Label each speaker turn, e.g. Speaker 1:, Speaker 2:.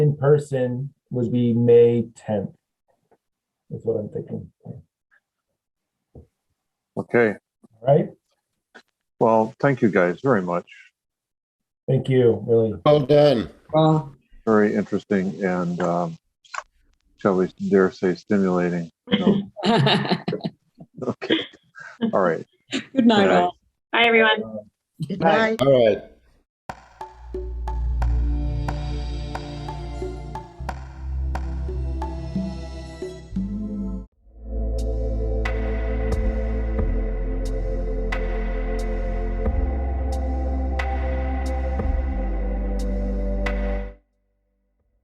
Speaker 1: in person would be May tenth. Is what I'm thinking. All
Speaker 2: Okay,
Speaker 1: right,
Speaker 2: well, thank you guys very much.
Speaker 1: thank you, really.
Speaker 3: Well done.
Speaker 4: Well,
Speaker 2: Very interesting and, um, shall we dare say stimulating. No,
Speaker 4: good
Speaker 2: Okay, all right.
Speaker 4: night
Speaker 2: Good night.
Speaker 4: all.
Speaker 5: Hi, everyone.
Speaker 3: All right.